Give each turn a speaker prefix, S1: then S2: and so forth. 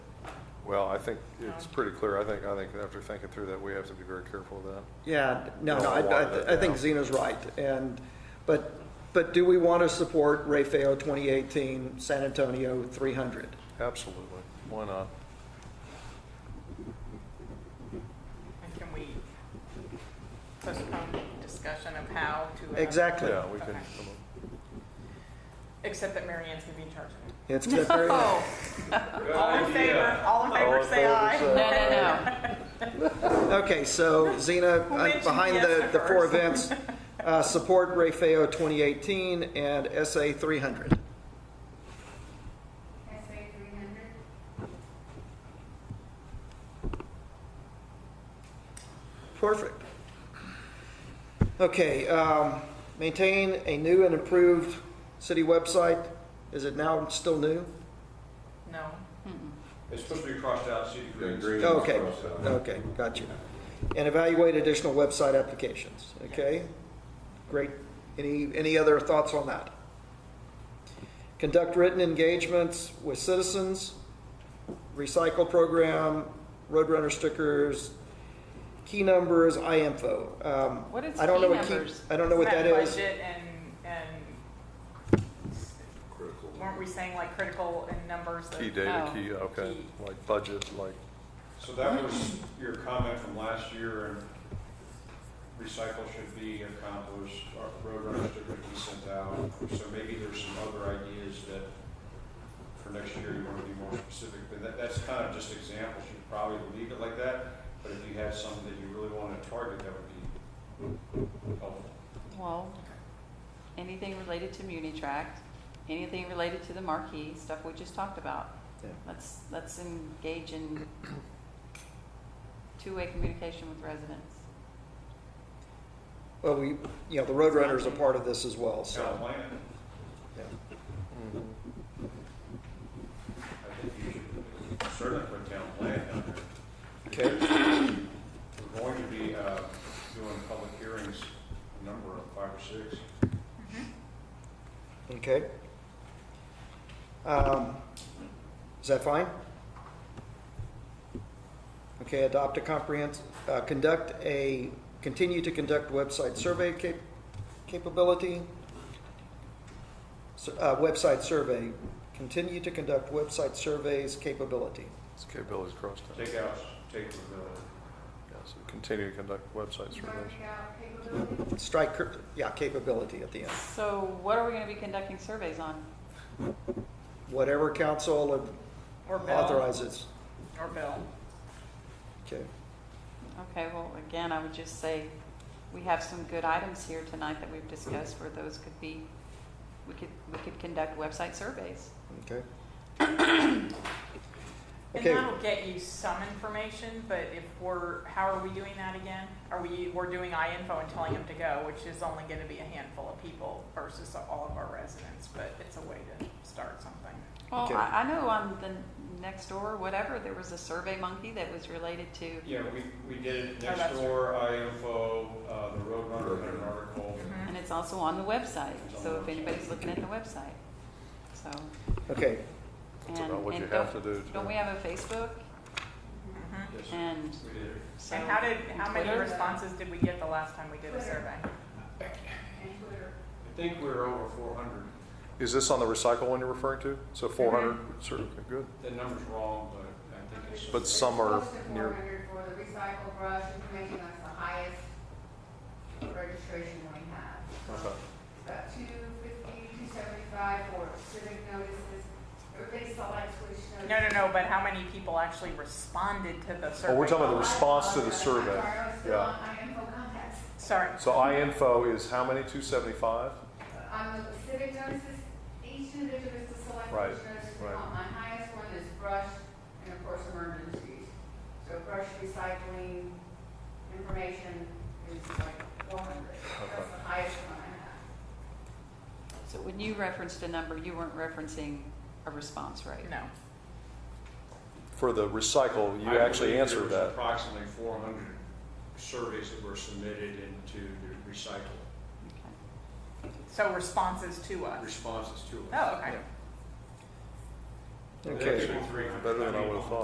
S1: Well, I think it's pretty clear. I think, I think after thinking through that, we have to be very careful of that.
S2: Yeah, no, no,
S1: Don't
S2: I,
S1: want that
S2: I- I think
S1: now.
S2: Zena's right, and, but, but do we want to support Rayfeo 2018, San Antonio 300?
S1: Absolutely. Why not?
S3: And can we postpone discussion of how to? uh,
S2: Exactly.
S1: Yeah, we can. um,
S3: Okay. Except that Mary Ann's gonna be in charge of it.
S2: It's been very,
S3: Oh, all in favor, all in favor, say aye.
S4: No, no, no.
S2: okay, so Zena,
S3: Who
S2: uh,
S3: mentioned
S2: behind the,
S3: Fiesta
S2: the four
S3: first?
S2: events, uh, support Rayfeo 2018 and SA 300.
S5: SA three hundred,
S2: Perfect. Okay, um, maintain a new and improved city website. Is it now still new?
S3: No,
S6: It's supposed to be crossed out, city green.
S2: Okay, okay, got you. And evaluate additional website applications, okay? Great. Any, any other thoughts on that? Conduct written engagements with citizens, recycle program, Roadrunner stickers, key numbers, iInfo. Um,
S4: What is
S2: I don't know
S4: key
S2: what
S4: numbers?
S2: I don't know what
S3: Isn't
S2: that is.
S3: Budget and, and weren't we saying like critical in numbers? of-
S1: Key data,
S4: Oh.
S1: key, okay,
S3: Key.
S1: like budget, like,
S6: So that was your comment from last year, and recycle should be a compost, our road runners that Ricky sent out. So maybe there's some other ideas that for next year you want to be more specific, but that, that's kind of just examples. You probably leave it like that, but if you had something that you really want to target, that would be helpful.
S4: Well, anything related to Muni Tract, anything related to the marquee, stuff we just talked about.
S2: Yeah.
S4: Let's, let's engage in two-way communication with residents.
S2: Well, we, you know, the Roadrunner's a part of this as well,
S6: Town
S2: so.
S6: plan,
S2: yeah.
S6: Mm-hmm.
S1: mm-hmm.
S6: I think you should certainly put town plan down there.
S2: Okay,
S6: We're going to be uh, doing public hearings, a number of five or six.
S2: okay. Um, Is that fine? Okay, adopt a comprehensive, uh, conduct a, continue to conduct website survey cap- capability. Sur- uh, Website survey, continue to conduct website surveys capability.
S1: it's capabilities crossed out.
S6: Take out, take the bill.
S1: Yeah, so continue to conduct website surveys.
S5: mark out capability.
S2: Strike, cur- yeah, capability at the end.
S4: So what are we gonna be conducting surveys on?
S2: Whatever council
S3: Or Bill,
S2: authorizes.
S3: or Bill.
S2: Okay,
S4: Okay, well, again, I would just say, we have some good items here tonight that we've discussed where those could be, we could, we could conduct website surveys.
S2: okay.
S3: And
S2: Okay.
S3: that'll get you some information, but if we're, how are we doing that again? Are we, we're doing info and telling them to go, which is only gonna be a handful of people versus all of our residents, but it's a way to start something.
S4: Well,
S2: Okay.
S4: I, I know on the next door, whatever, there was a survey monkey that was related to,
S6: Yeah, we, we did it
S3: Oh,
S6: next
S3: that's
S6: door, IFO, uh, the Roadrunner had an article.
S3: Mm-hmm.
S4: and it's also on the website, so if anybody's looking at the website, so.
S2: Okay,
S1: It's
S4: and-
S1: about what
S4: and
S1: you have to
S4: don't-
S1: do. to-
S4: Don't we have a Facebook?
S6: Yes,
S4: And
S6: we did. it.
S4: so.
S3: And how did, how many
S4: Twitter? uh,
S3: responses did we get the last time we did a survey?
S5: And Twitter.
S6: I think we were over four hundred.
S1: Is this on the recycle one you're referring to? So
S3: Mm-hmm.
S1: 400, certainly, good.
S6: The number's wrong, but I think it's.
S1: But some are
S5: Close to four
S1: near,
S5: hundred for the recycle brush, it's making us the highest registration we have.
S1: okay.
S5: It's About two fifty, two seventy-five for civic notices, or they select which notice.
S3: No, no, no, but how many people actually responded to the survey?
S1: Oh, we're talking about the
S5: I-
S1: response to the
S5: I'm
S1: survey.
S5: sorry, I was still
S1: Yeah.
S5: on IMO contacts.
S3: Sorry,
S1: So iInfo is how many, 275?
S5: On the civic notices, each individual is to select
S1: Right,
S5: which notice they
S1: right.
S5: want. My highest one is brush and of course emergencies. So brush recycling information is like four hundred. That's the highest one I have.
S4: So when you referenced a number, you weren't referencing a response rate?
S3: no.
S1: For the recycle,
S6: I
S1: you
S6: believe
S1: actually
S6: there
S1: answered
S6: was
S1: that.
S6: Approximately four hundred surveys that were submitted into the recycle
S4: Okay.
S3: So responses to us.
S6: responses to it.
S3: Oh, okay.
S2: okay.
S6: Three hundred.
S1: Better than I
S6: mean,
S1: would've thought.